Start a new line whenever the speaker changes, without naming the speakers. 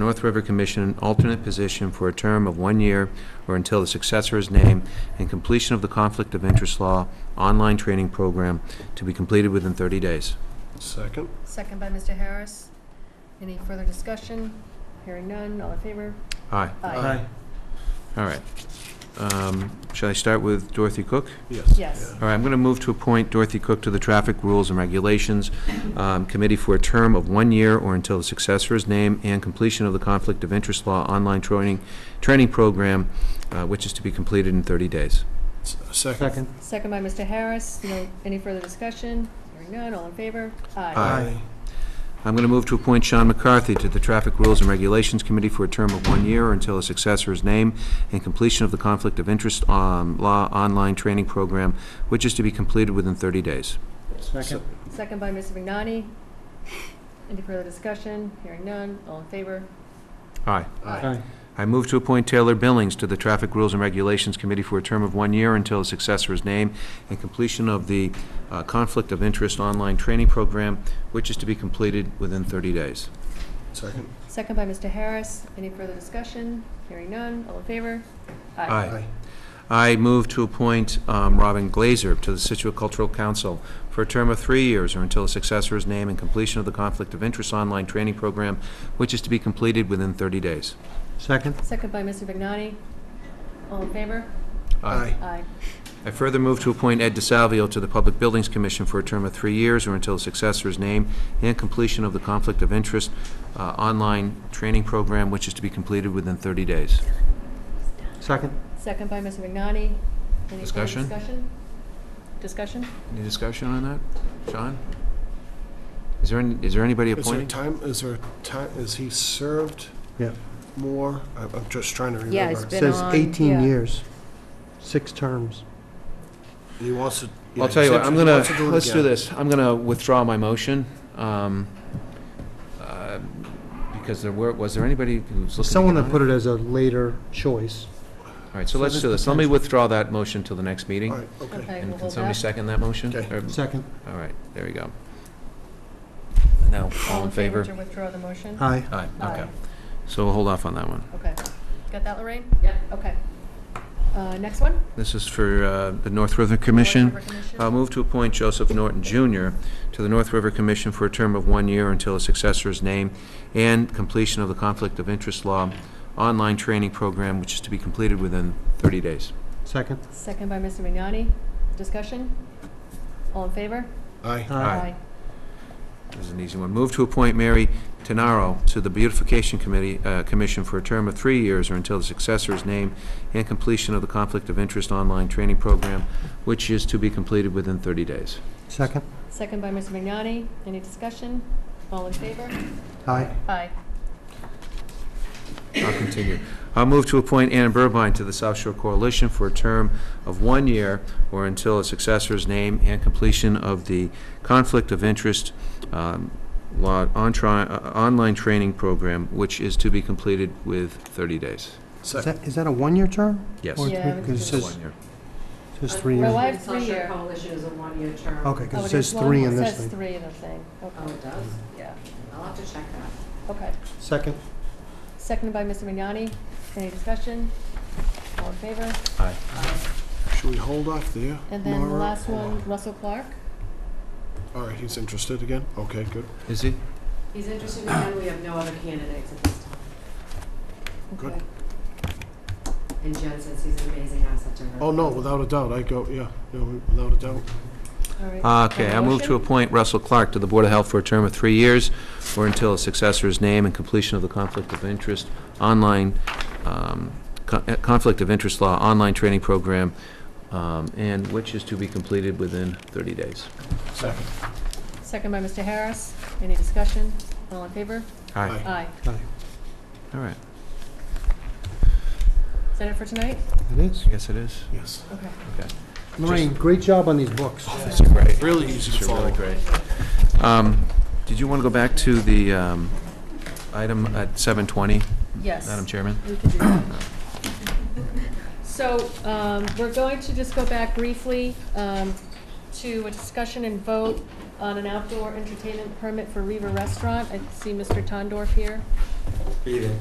North River Commission an alternate position for a term of one year or until the successor is named and completion of the Conflict of Interest Law online training program to be completed within 30 days.
Second.
Second by Mr. Harris. Any further discussion? Hearing none, all in favor?
Aye. All right. Um, Shall I start with Dorothy Cook?
Yes.
Yes.
All right, I'm going to move to appoint Dorothy Cook to the Traffic Rules and Regulations um, Committee for a term of one year or until the successor is named and completion of the Conflict of Interest Law online training, training program, uh, which is to be completed in 30 days.
S- Second.
Second by Mr. Harris. No, any further discussion? Hearing none, all in favor?
Aye. I'm going to move to appoint Sean McCarthy to the Traffic Rules and Regulations Committee for a term of one year or until a successor is named and completion of the Conflict of Interest um, Law online training program, which is to be completed within 30 days.
Second.
Second by Mr. Vignani. Any further discussion? Hearing none, all in favor?
Aye.
Aye.
I move to appoint Taylor Billings to the Traffic Rules and Regulations Committee for a term of one year until a successor is named and completion of the uh, Conflict of Interest Online Training Program, which is to be completed within 30 days.
Second.
Second by Mr. Harris. Any further discussion? Hearing none, all in favor?
Aye. I move to appoint um, Robin Glazer to the Situate Cultural Council for a term of three years or until a successor is named and completion of the Conflict of Interest Online Training Program, which is to be completed within 30 days.
Second?
Second by Mr. Vignani. All in favor? Aye.
I further move to appoint Ed DeSalvio to the Public Buildings Commission for a term of three years or until a successor is named and completion of the Conflict of Interest uh, Online Training Program, which is to be completed within 30 days.
Second?
Second by Mr. Vignani. Any further
Discussion?
discussion? Discussion?
Any discussion on that? John? Is there, any- is there anybody
Is there
appointed?
time, is there time, is he served
Yeah.
more? I- I'm just trying to remember.
Yeah, it's been-
Says
on- yeah.
18 years, six terms.
He wants to. yeah,
I'll tell you
he
what,
said
I'm
he
gonna,
wants to it
let's do
again.
this. I'm gonna withdraw my motion, um, uh, because there were, was there anybody who was looking to
Someone
get
had
on
put it as a later choice.
All right, so let's do this. Let me withdraw that motion till the next meeting.
All right, okay.
Okay,
And
we'll
can
hold
somebody
that.
second that motion?
Okay.
Or-
Second?
All right, there you go. Now, all in favor?
To withdraw the motion?
Aye.
Aye, okay.
Aye.
So we'll hold off on that one.
Okay. Got that, Lorraine? Yep. Okay. Uh, Next one?
This is for uh, the North River Commission. Um,
Board Member Commission.
I'll move to appoint Joseph Norton Jr. to the North River Commission for a term of one year until a successor is named and completion of the Conflict of Interest Law online training program, which is to be completed within 30 days.
Second?
Second by Mr. Vignani. Discussion? All in favor?
Aye.
Aye. This is an easy one. Move to appoint Mary Tenaro to the Beautification Committee, uh, Commission for a term of three years or until the successor is named and completion of the Conflict of Interest Online Training Program, which is to be completed within 30 days.
Second?
Second by Mr. Vignani. Any discussion? All in favor?
Aye.
Aye.
I'll continue. I'll move to appoint Anna Burbine to the South Shore Coalition for a term of one year or until a successor's name and completion of the Conflict of Interest um, Law on tri- uh, Online Training Program, which is to be completed with 30 days.
Is
Second.
that, is that a one-year term?
Yes.
Or
Yeah, I
three-
would
'cause it
think it's
says,
One year.
says three
Well,
years.
I- have three
Social
year.
Coalition is a one-year term.
Okay, because
Oh,
it
it
says
is one-
three in
it
this
says
thing.
three in the thing.
Oh,
Okay.
it does?
Um, Yeah.
I'll have to check that.
Okay.
Second?
Seconded by Mr. Vignani. Any discussion? All in favor?
Aye.
Uh,
Should we hold off there?
And then the
Mara?
last
Hold
one, Russell Clark.
All right, he's interested again? Okay, good.
Is he?
He's interested again, we have no other candidates at this time.
Good.
Okay.
And Jen says he's an amazing asset to her.
Oh, no, without a doubt, I go, yeah, no, without a doubt.
All right.
Uh, Okay,
And a
I move to
motion?
appoint Russell Clark to the Board of Health for a term of three years or until a successor's name and completion of the Conflict of Interest Online, um, co- uh, Conflict of Interest Law Online Training Program, um, and which is to be completed within 30 days.
Second.
Second by Mr. Harris. Any discussion? All in favor?
Aye.
Aye.
Aye.
All right,
Is that it for tonight?
It is.
yes, it is.
Yes.
Okay.
Lorraine, great job on these books.
That's great.
Really easy to
These are
follow.
really great. Um, Did you want to go back to the um, item at 7:20,
Yes.
Madam Chairman?
We can do that. So, um, we're going to just go back briefly, um, to a discussion and vote on an outdoor entertainment permit for Riva Restaurant. I see Mr. Tondorf here.
Evening.